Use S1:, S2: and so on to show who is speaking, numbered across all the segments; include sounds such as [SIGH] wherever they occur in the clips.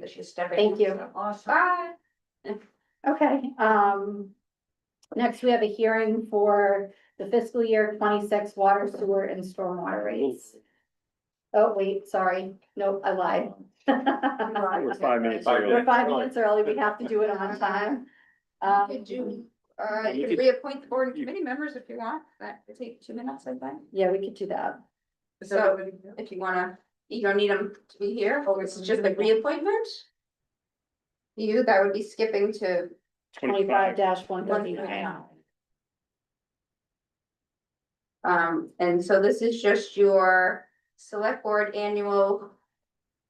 S1: that she's stepping.
S2: Thank you.
S1: Awesome.
S2: Bye. Okay, um. Next, we have a hearing for the fiscal year twenty-six water, sewer and stormwater rates. Oh, wait, sorry. Nope, I lied.
S1: We're
S3: five minutes
S2: We're
S3: early.
S2: five minutes early. We have to do it on time. Um,
S1: Could you, uh,
S3: You
S1: you
S3: could-
S1: could reappoint the board and
S3: you-
S1: committee members if you want, that could take two minutes, I think.
S2: yeah, we could do that.
S1: So if you wanna, you don't need them to be here, or it's just a reappointment? You, that would be skipping to
S2: Twenty-five one
S1: one
S2: thirty-nine.
S1: Um, and so this is just your select board annual.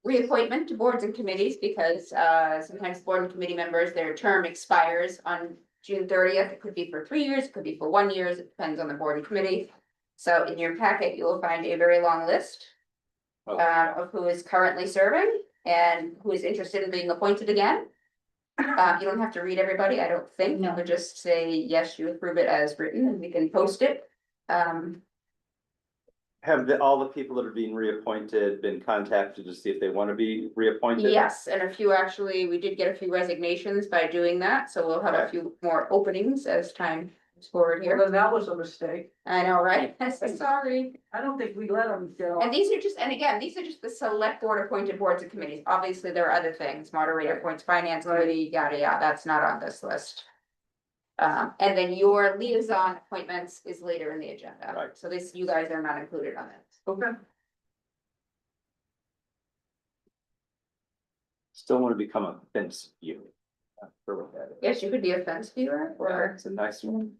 S1: Reappointment to boards and committees because uh sometimes board and committee members, their term expires on June thirtieth. It could be for three years, it could be for one year, it depends on the board and committee. So in your packet, you will find a very long list.
S3: Oh.
S1: uh, of who is currently serving and who is interested in being appointed again. Uh, you don't have to read everybody, I don't think,
S2: No.
S1: we'll just say, yes, you approve it as written, and we can post it. Um,
S3: Have the, all the people that are being reappointed been contacted to see if they want to be reappointed?
S1: yes, and a few actually, we did get a few resignations by doing that, so we'll have a
S3: Okay.
S1: few more openings as time goes forward
S4: Well,
S1: here.
S4: then that was a mistake.
S1: I know, right? [LAUGHS] Sorry.
S4: I don't think we let them go.
S1: And these are just, and again, these are just the select board appointed boards and committees. Obviously, there are other things, moderator appoints finance committee, yada, yada, that's not on this list. Um, and then your liaison appointments is later in the agenda.
S3: Right.
S1: So this, you guys are not included on it.
S4: Okay.
S3: Still want to become a fence viewer. Not sure what that is.
S1: Yes, you could be a fence viewer
S3: Yeah,
S1: or
S3: It's a nice one.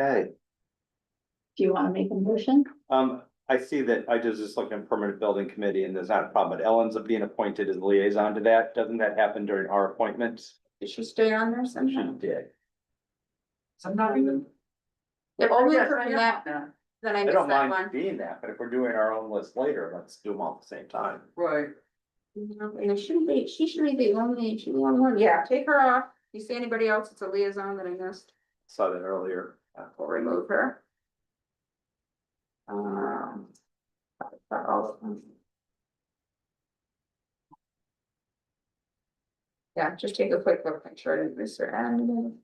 S3: Okay,
S2: Do you want to make a motion?
S3: um, I see that I just just looking at permanent building committee and there's not a problem, but Ellen's being appointed as liaison to that. Doesn't that happen during our appointments?
S1: did she stay on there
S3: She
S1: somehow?
S3: did.
S4: I'm not even.
S1: If only
S4: Yeah,
S1: from
S4: yeah.
S1: that, then I
S3: I
S1: missed
S3: don't
S1: that
S3: mind
S1: one.
S3: being that, but if we're doing our own list later, let's do them all at the same time.
S4: Right,
S1: No, And it shouldn't be, she should be the only, she should be the only one. Yeah, take her off. You see anybody else that's a liaison that I missed?
S3: Saw that earlier. Uh,
S1: We'll remove her. Um. for all of them. Yeah, just take a quick look, make sure I didn't miss her. And.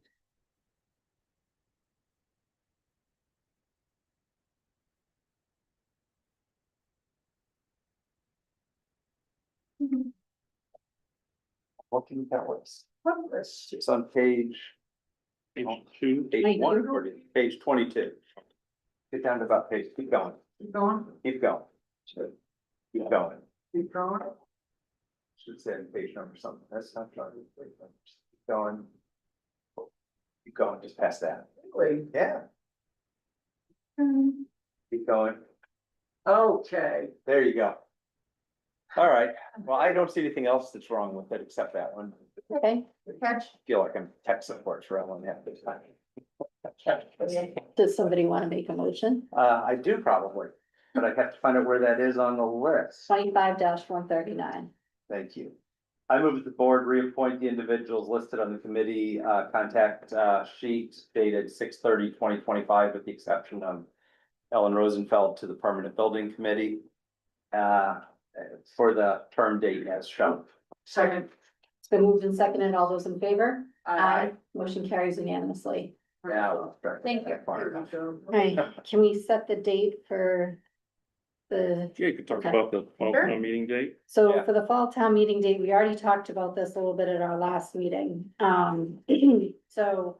S3: What can you tell us?
S1: What was
S3: It's on page. Page two. Page one, or page twenty-two. Get down to about page, keep going,
S4: keep going,
S3: keep going. Keep going.
S4: keep going.
S3: Should say page number something, that's not trying to. page numbers. Keep Going. Keep going, just past that.
S4: Wait.
S3: Yeah, keep going.
S4: Okay,
S3: There you go. All right, well, I don't see anything else that's wrong with it except that one.
S2: Okay,
S1: catch?
S3: Feel like I'm tech support for Ellen half the time.
S2: does somebody want to make a motion?
S3: Uh, I do probably, but I have to find out where that is on the list.
S2: Twenty-five one thirty-nine.
S3: Thank you. I move that the board reappoint the individuals listed on the committee uh contact uh sheet dated 2025, with the exception of Ellen Rosenfeld to the Permanent Building Committee uh for the term date as shown.
S4: second.
S2: It's been moved and seconded. All those in favor?
S4: I
S2: Motion carries unanimously.
S3: Now.
S1: Thank you.
S2: Alright, can we set the date for the,
S5: Yeah, you could talk
S2: Okay.
S5: about the fall
S1: Sure.
S5: town meeting date.
S2: so
S3: Yeah.
S2: for the fall town meeting date, we already talked about this a little bit at our last meeting, um, [CLEARS THROAT] so.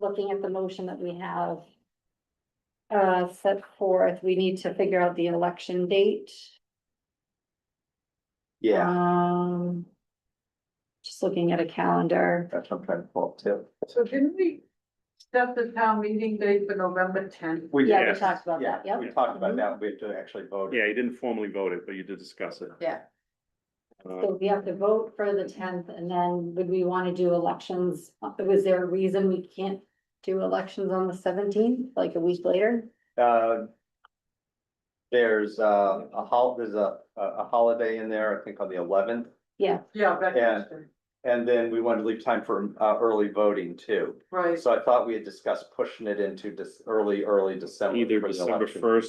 S2: Looking at the motion that we have. Uh, set forth, we need to figure out the election date.
S3: Yeah,
S2: Um. Just looking at a calendar,
S3: that's what I'm trying to pull up too.
S4: So didn't we set the town meeting date for November tenth?
S3: We,
S2: yeah,
S3: yeah,
S2: we talked about that, yep, Mm-hmm.
S3: we talked about that. We have to actually vote.
S5: Yeah, you didn't formally vote it, but you did discuss it.
S1: Yeah.
S5: Uh,
S2: so we have to vote for the tenth, and then would we wanna do elections, was there a reason we can't? Do elections on the seventeenth, like a week later?
S3: Uh, There's uh, a hol, there's a, a a holiday in there, I think on the eleventh,
S4: Yeah,
S3: Yeah.
S4: Veterans Day,
S3: and then we wanted to leave time for uh, early voting too.
S4: right.
S3: So I thought we had discussed pushing it into this early, early December.
S5: Either
S3: for the
S5: December
S3: election.
S5: first